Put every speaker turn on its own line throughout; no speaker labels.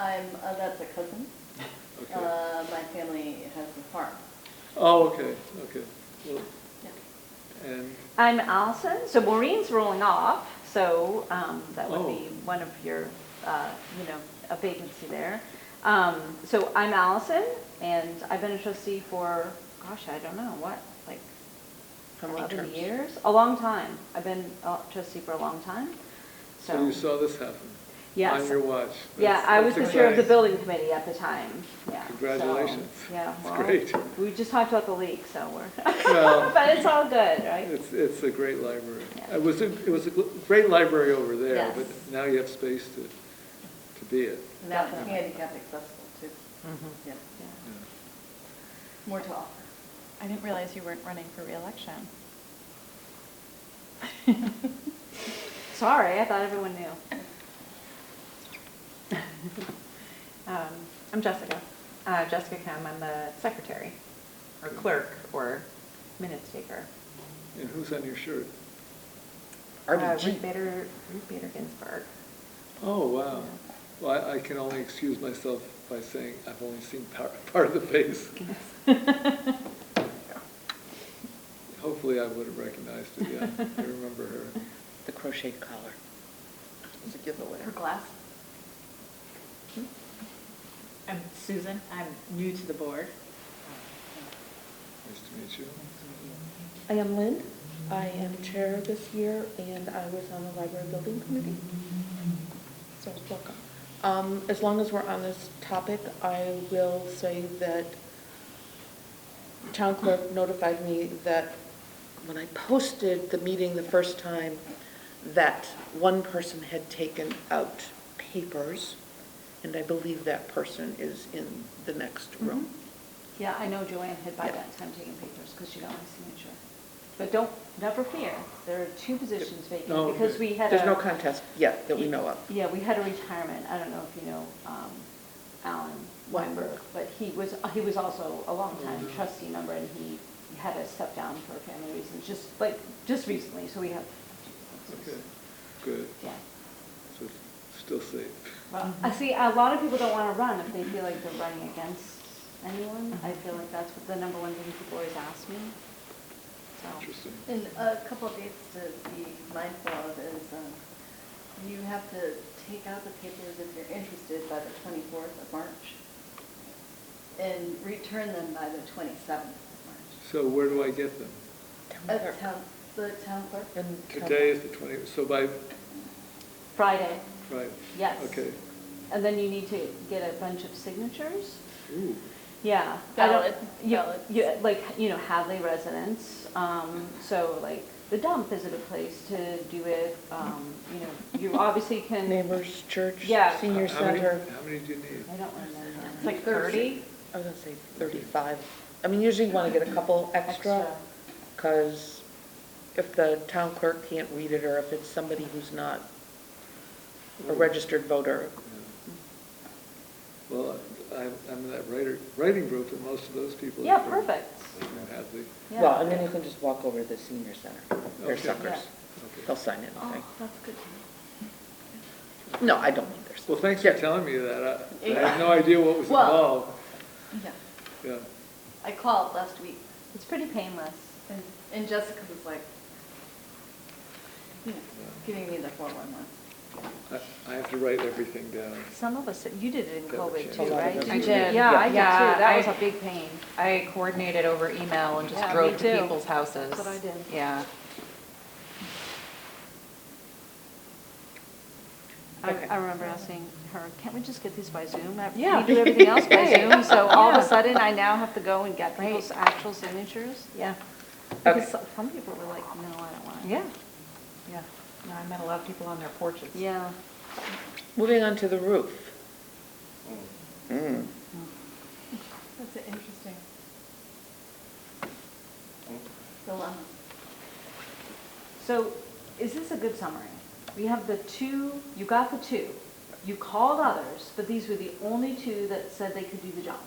I'm, uh, that's a cousin.
Okay.
Uh, my family has a farm.
Oh, okay, okay. Well,
Yeah.
And,
I'm Allison, so Maureen's rolling off, so um, that would be
Oh.
one of your, uh, you know, a vacancy there. Um, So I'm Allison, and I've been a trustee for, gosh, I don't know, what, like
How many
11
terms?
years? A long time. I've been a trustee for a long time,
so
so.
you saw this happen?
Yes.
On your watch?
Yeah,
That's-
I was
that's
the chair of the
exciting.
building committee at the time, yeah. so,
Congratulations.
Yeah.
That's
well,
great.
We just talked about the leak, so we're,
Well,
but it's all good, right?
It's, it's a great library.
Yeah.
It was, a it was a gl- great library over there,
Yes.
but now you have space to, to be it.
And that's
Definitely.
handicap accessible too. Yeah,
Yeah.
Yeah.
more to offer.
I didn't realize you weren't running for reelection.
Sorry, I thought everyone knew.
Um, I'm Jessica. Uh, Jessica Kim, I'm the secretary, or clerk, or minutes taker.
And who's on your shirt?
Uh,
RBG.
Ruth Bader, Ruth Bader Ginsburg.
Oh, wow. Well, I- I can only excuse myself by saying I've only seen par- part of the face. Hopefully I would have recognized it, yeah. I remember her.
The crocheted collar. It's a giveaway.
Her glass.
I'm Susan, I'm new to the board.
Nice to meet you.
I am Lynn. I am chair this year, and I was on the library building committee. So welcome. Um, As long as we're on this topic, I will say that town clerk notified me that when I posted the meeting the first time, that one person had taken out papers, and I believe that person is in the next
Mm-hmm.
room.
Yeah, I know Joanne had by that time taken pictures because she got my signature. But don't, never fear, there are two positions
Oh,
vacant because
okay.
we had a.
There's no contest yet that we know of.
Yeah, we had a retirement, I don't know if you know um, Alan Weinberg, but he was, he was also a longtime
Mm-hmm.
trustee member and he had to step down for family reasons, just like, just recently, so we have. two
Okay,
vacancies.
good.
Yeah.
So still safe.
Well, I see, a lot of people don't want to run if they feel like they're running against anyone. I feel like that's what the number one thing people always ask me, so.
Interesting.
And a couple of dates to be mindful of is, um, you have to take out the papers if you're interested by the 24th of March and return them by the 27th of
So where do I get them?
March. Uh, town- The town clerk.
And tell-
Today is the 20, so by,
Friday,
right?
Yes.
Okay.
and then you need to get a bunch of signatures.
Ooh,
Yeah. I don't-
Valid,
you-
valid.
you- like, you know, Hadley residents, um, so like, the dump is a good place to do it, um, you know, you obviously can.
Neighbors, church,
Yeah.
senior
how many-
center,
How many do you need?
I don't remember.
It's like 30?
I was gonna say thirty-five. I mean, usually you wanna get a couple extra,
Extra.
cause if the town clerk can't read it, or if it's somebody who's not
Mm.
a registered voter,
Yeah. Well, I'm, I'm in that writer, writing group, and most of those people. are
Yeah,
from-
perfect.
from Hadley.
Yeah.
well, and then you can just walk over to the senior center. They're
Okay.
suckers.
Okay.
They'll sign anything.
Oh, that's good to know.
No, I don't need theirs.
Well, thanks for telling me that. I- I
Yeah.
had no idea what was
Well-
involved.
Yeah.
Yeah.
I called last week
It's pretty painless.
and, and Jessica was like, you know, giving me the 411.
I I have to write everything down.
Some of us, you did it in
Got the
COVID
chance.
too,
A lot of
right?
us
Didn't you?
did.
Yeah, I did too.
Yeah,
That was
I-
a big pain.
I coordinated over email and just
Yeah, me
drove to
too.
people's houses.
That's what I did.
Yeah.
I,
Okay.
I remember asking her, can't we just get these by Zoom? I-
Yeah.
We do everything else by
Right.
Zoom, so all of a
Yeah.
sudden I now have to go and get
Right.
people's actual signatures?
Yeah.
Because
Okay.
so- some people were like, no, I don't want it.
Yeah. Yeah. No, I met a lot of people on their porches.
Yeah.
Moving on to the roof. Mm.
That's an interesting. Dilemma.
So is this a good summary? We have the two, you got the two. You called others, but these were the only two that said they could do the job.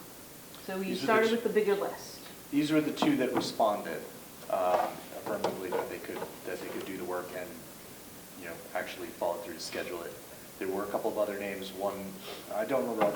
So you
These are the
started
two-
with the bigger list.
These were the two that responded um, affirmatively that they could, that they could do the work and, you know, actually follow through to schedule it. There were a couple of other names, one, I don't remember